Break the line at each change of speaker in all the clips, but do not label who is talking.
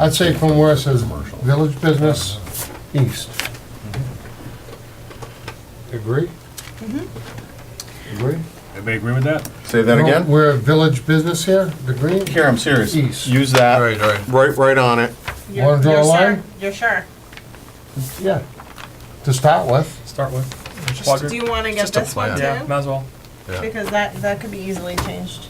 I'd say from where it says village business east. Agree? Agree?
Everybody agree with that?
Say that again?
We're village business here, the green?
Here, I'm serious.
East.
Use that.
Right, right.
Right, right on it.
You're- Wanna draw a you're sure- line?
You're sure?
Yeah. To start with,
Start with. Plug
Do
her.
you wanna get
Just a
this one
plan.
Yeah,
too?
might as well.
Yeah,
Because that, that could be easily changed.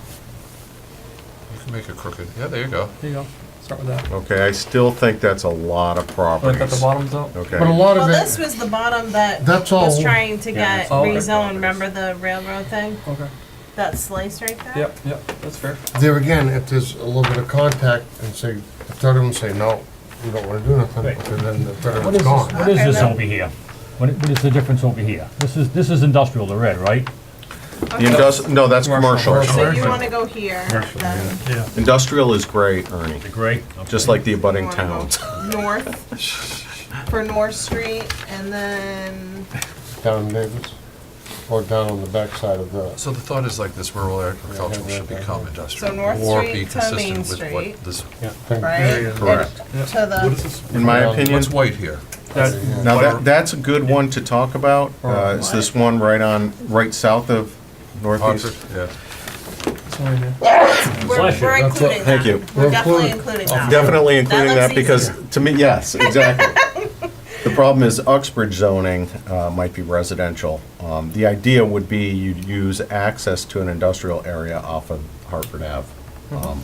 you can make it crooked. Yeah, there you go.
There you go. Start with that.
Okay, I still think that's a lot of
Like at the
properties.
bottom's up.
Okay.
but a lot
Well,
of
this
it,
was the bottom that
that's all,
was trying to
Yeah,
get
all right.
rezoned, remember the railroad thing?
Okay.
That slice right there?
Yep, yep. That's fair.
there again, if there's a little bit of contact and say, if third of them say, no, we don't wanna do nothing,
Right.
and then the third of
What is
it's
this,
gone.
what is
Okay,
this
then.
over here? What, i- what is the difference over here? This is, this is industrial, the red, right?
The industri, no, that's commercial.
So you wanna go here,
Commercial,
then
Industrial is gray, Ernie,
The gray? Okay.
just like the
you
abutting
wanna
towns.
go north, for North Street, and then,
Down in Davis, or down on the backside of the,
So the thought is like this rural agricultural should become industrial.
So North
or
Street
be
to
consistent
Main
with what
Street.
this-
right,
Correct.
to the,
In my opinion,
What's white here?
That,
now that, that's a good one to talk about, uh, is this one right on, right south of
Oxford?
northeast.
Yeah.
that's one right there.
we're,
Bless you,
we're
that's
including that.
thank you.
We're
We're definitely
including-
including that.
Definitely including
looks
that because, to me, yes, exactly. The problem is Uxbridge zoning uh, might be residential. Um, The idea would be you'd use access to an industrial area off of Hartford Ave. Um,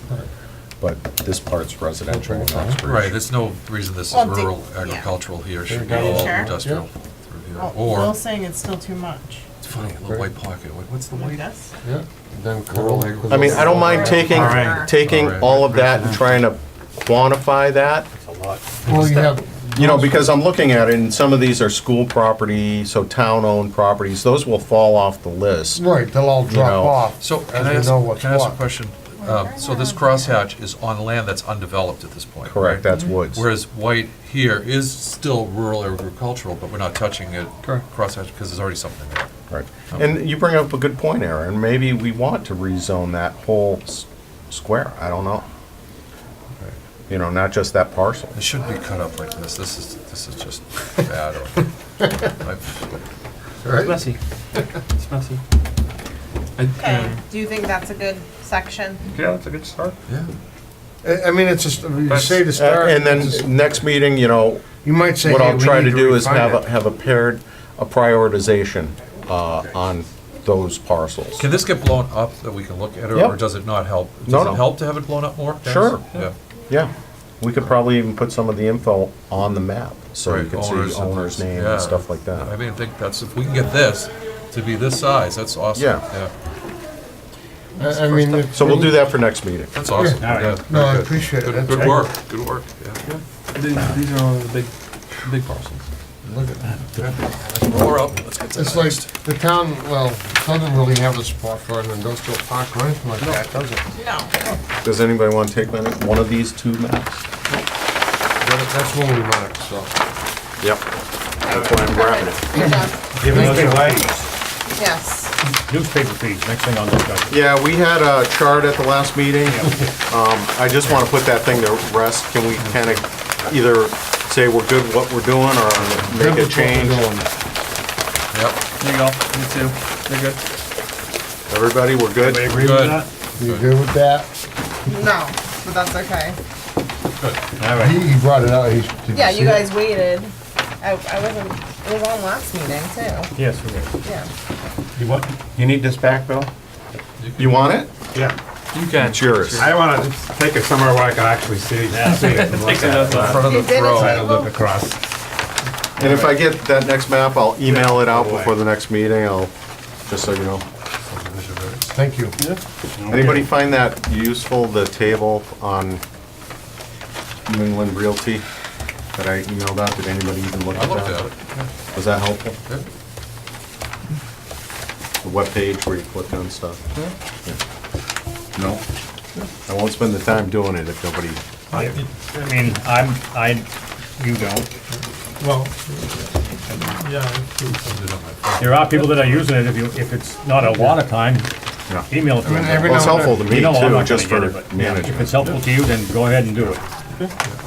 But this part's residential in Uxbridge.
Hmm. Right, there's no reason this is
Well, do-
rural
yeah.
agricultural here should be
Are you
all
sure? Oh,
industrial through here.
Well,
Or,
Bill's saying it's still too much,
it's funny, a little white pocket. Wait, What's the
I
white?
guess.
yeah, then.
Rural
I mean, I don't mind taking,
All right.
taking
All right.
all of that and trying to quantify that.
Well, you have,
You know, because I'm looking at it and some of these are school property, so town-owned properties, those will fall off the list.
right, they'll all
You
drop
know,
off.
So, can
as
I
we
ask,
know what's
can I ask a
what.
question? Uh, So this crosshatch is on land that's undeveloped at this point?
Correct,
right?
that's woods.
Whereas white here is still rural agricultural, but we're not touching it,
Correct.
crosshatch, because there's already something there.
Right. And you bring up a good point, Aaron. Maybe we want to rezone that whole s- square. I don't know. You know, not just that parcel.
It shouldn't be cut up like this, this is, this is just bad. I-
It's
Right?
messy. It's messy. I,
Okay,
um,
do you think that's a good section?
yeah, that's a good start.
Yeah,
I, I mean, it's just, you
That's-
say to
Uh,
start.
And
it's just-
then next meeting, you know,
You might say,
what
hey,
I'll
we
try
need
to do is
refine
have, a
it.
have a paired, a prioritization uh, on those parcels.
Can this get blown up that we can look at it, or
Yep.
does it not help?
No,
Does
no.
it help to have it blown up more? Dennis?
Sure.
Yeah.
Yeah. We could probably even put some of the info on the map, so you
Right,
can
owners
see
and-
owner's name
yeah.
and stuff like
I
that.
mean, I think that's, if we can get this to be this size, that's awesome.
Yeah.
I I mean. if-
So we'll do that for next meeting.
That's awesome.
Yeah.
Yeah,
No, I
very good.
appreciate it.
Good
That's
good
great.
work, good work, yeah.
These, these are all the big, big parcels.
Look at that.
More up, let's get to
It's
that.
like, the town, well, doesn't really have a spot for an industrial park or anything like that, does it?
No.
Does anybody want to take one one of these two maps?
That- That's what we marked, so.
Yep. That's why I'm grabbing it.
Yes.
Giving us away.
Yes.
Newspaper fees, next thing on the discussion.
Yeah, we had a chart at the last meeting. Um, I just want to put that thing to rest. Can we kind of either say we're good what we're doing or make a change?
Yep,
There you go. Me too. They're good.
Everybody, we're
Everybody
good?
agree with
Good.
that?
You agree with that?
No, but that's okay.
All
He,
right.
he brought it out, he's. did
Yeah, you
see it?
guys waited. I, I wasn't, it was on last meeting
Yes, it is.
too, yeah.
You what?
You need this back, Bill?
You want it?
Yeah.
You can.
It's yours.
I want to take it somewhere where I can actually see see it and look at it.
in front of
You
the
did it
throne.
Try to look across.
And if I get that next map, I'll email it out before the next meeting. I'll, just so you know.
Thank you.
Anybody find that useful, the table on New England Realty that I emailed out? Did anybody even look
I
at
looked
that?
at it.
Was that helpful?
Yeah.
The webpage where you click on stuff?
Hmm?
Yeah. No? I won't spend the time doing it if nobody,
I I mean, I'm, I, you don't.
Well, yeah.
There are people that are using it, if you, if it's not a lot of time,
yeah.
email it to
mean, every
Well,
them.
it's
now and
helpful to
You
me
know I'm not
too,
gonna
just
get
for
it, but, yeah, If
management.
it's helpful to you, then go ahead and do it.